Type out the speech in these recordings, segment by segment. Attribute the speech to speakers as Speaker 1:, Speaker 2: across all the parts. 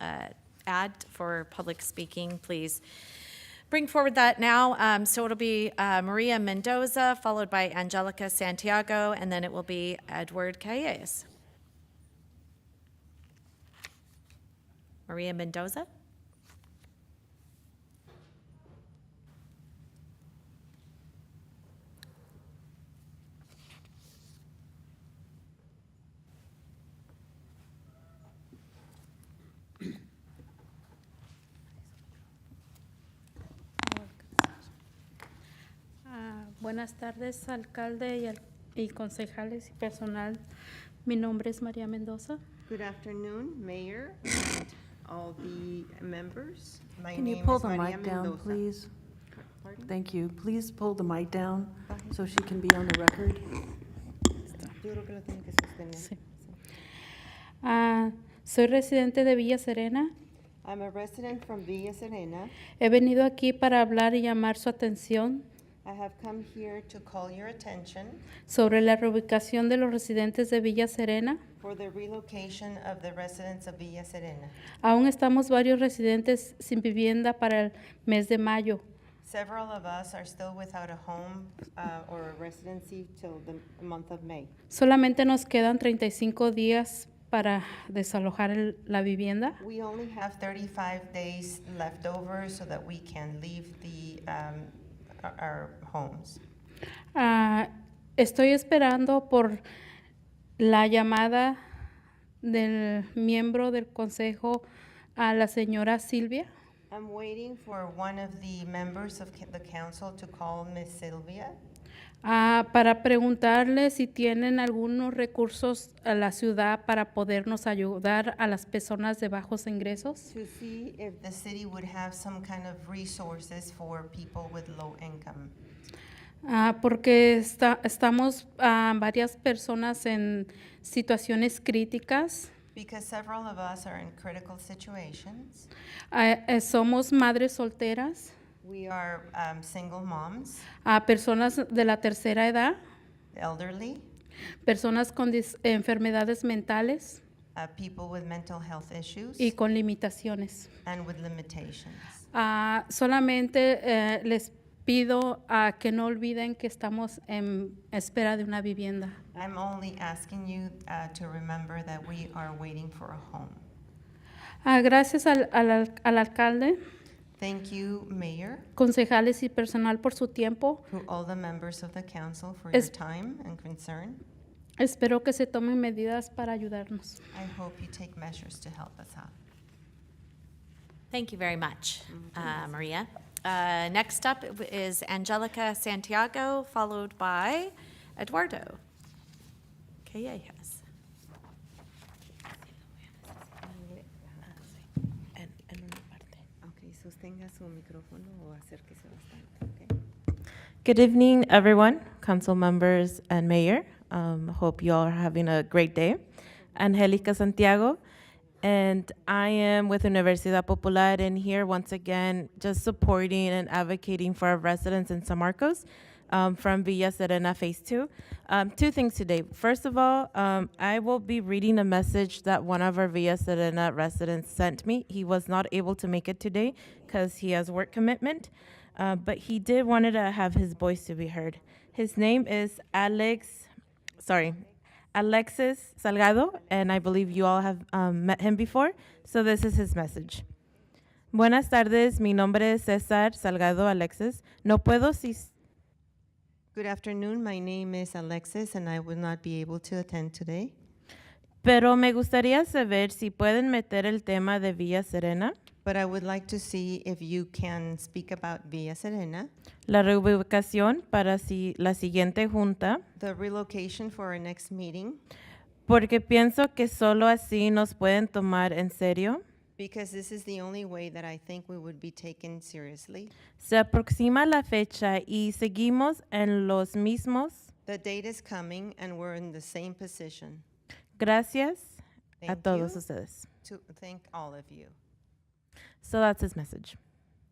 Speaker 1: uh, ad for public speaking, please bring forward that now. Um, So it'll be uh, Maria Mendoza, followed by Angelica Santiago, and then it will be Edward Calles. Maria Mendoza?
Speaker 2: Ah, Buenas tardes, alcalde y al- y concejales y personal. Mi nombre es María Mendoza.
Speaker 3: Good afternoon, Mayor, and all the members. My
Speaker 4: Can you
Speaker 3: name
Speaker 4: pull
Speaker 3: is
Speaker 4: the
Speaker 3: Maria
Speaker 4: mic down,
Speaker 3: Mendoza.
Speaker 4: please?
Speaker 3: Pardon?
Speaker 4: Thank you. Please pull the mic down so she can be on the record.
Speaker 3: Yo creo que lo tiene que sostener.
Speaker 2: Sí. Ah, Soy residente de Villa Serena.
Speaker 3: I'm a resident from Villa Serena.
Speaker 2: He venido aquí para hablar y llamar su atención
Speaker 3: I have come here to call your attention
Speaker 2: sobre la reubicación de los residentes de Villa Serena.
Speaker 3: for the relocation of the residents of Villa Serena.
Speaker 2: Aún estamos varios residentes sin vivienda para el mes de mayo.
Speaker 3: Several of us are still without a home uh, or a residency till the month of May.
Speaker 2: Solamente nos quedan 35 días para desalojar el- la vivienda.
Speaker 3: We only have 35 days left over so that we can leave the, um, our- our homes.
Speaker 2: Ah, estoy esperando por la llamada del miembro del consejo a la señora Silvia.
Speaker 3: I'm waiting for one of the members of ca- the council to call Miss Sylvia
Speaker 2: ah, para preguntarle si tienen algunos recursos a la ciudad para podernos ayudar a las personas de bajos ingresos.
Speaker 3: to see if the city would have some kind of resources for people with low income.
Speaker 2: Ah, porque está- estamos ah, varias personas en situaciones críticas.
Speaker 3: Because several of us are in critical situations.
Speaker 2: Ah, eh, somos madres solteras,
Speaker 3: We are um, single moms,
Speaker 2: ah, personas de la tercera edad.
Speaker 3: elderly,
Speaker 2: personas con dis- enfermedades mentales
Speaker 3: uh, people with mental health issues,
Speaker 2: y con limitaciones.
Speaker 3: and with limitations.
Speaker 2: Ah, solamente eh, les pido ah, que no olviden que estamos en espera de una vivienda.
Speaker 3: I'm only asking you uh, to remember that we are waiting for a home.
Speaker 2: Ah, gracias al, al al- al alcalde,
Speaker 3: Thank you, Mayor.
Speaker 2: concejales y personal por su tiempo.
Speaker 3: To all the members of the council for your
Speaker 2: Es-
Speaker 3: time and concern.
Speaker 2: Espero que se tomen medidas para ayudarnos.
Speaker 3: I hope you take measures to help us out.
Speaker 1: Thank you very much, uh, Maria. Uh, Next up is Angelica Santiago, followed by Eduardo Calles.
Speaker 3: Okay, sostenga su micrófono o acérquese bastante, okay?
Speaker 5: Good evening, everyone, council members and mayor. Um, hope you all are having a great day. Angelica Santiago, and I am with Universidad Popular, and here once again just supporting and advocating for our residents in San Marcos um, from Villa Serena Phase 2. Um, two things today. First of all, um, I will be reading a message that one of our Villa Serena residents sent me. He was not able to make it today because he has work commitment uh, but he did wanted to have his voice to be heard. His name is Alex, sorry, Alexis Salgado, and I believe you all have um, met him before. So this is his message. Buenas tardes, mi nombre es César Salgado Alexis. No puedo si
Speaker 3: Good afternoon, my name is Alexis and I will not be able to attend today.
Speaker 5: pero me gustaría saber si pueden meter el tema de Villa Serena,
Speaker 3: But I would like to see if you can speak about Villa Serena,
Speaker 5: la reubicación para si la siguiente junta,
Speaker 3: the relocation for our next meeting,
Speaker 5: porque pienso que solo así nos pueden tomar en serio.
Speaker 3: because this is the only way that I think we would be taken seriously.
Speaker 5: Se aproxima la fecha y seguimos en los mismos.
Speaker 3: The date is coming and we're in the same position.
Speaker 5: Gracias a
Speaker 3: Thank
Speaker 5: todos
Speaker 3: you.
Speaker 5: ustedes.
Speaker 3: To thank all of you.
Speaker 5: So that's his message.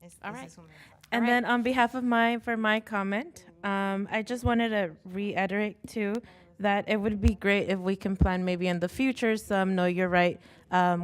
Speaker 3: Es-
Speaker 1: All
Speaker 3: ese
Speaker 1: right.
Speaker 3: es un mensaje.
Speaker 5: And
Speaker 1: Alright.
Speaker 5: then on behalf of my for my comment, um, I just wanted to reiterate too that it would be great if we can plan maybe in the future some know you're right um,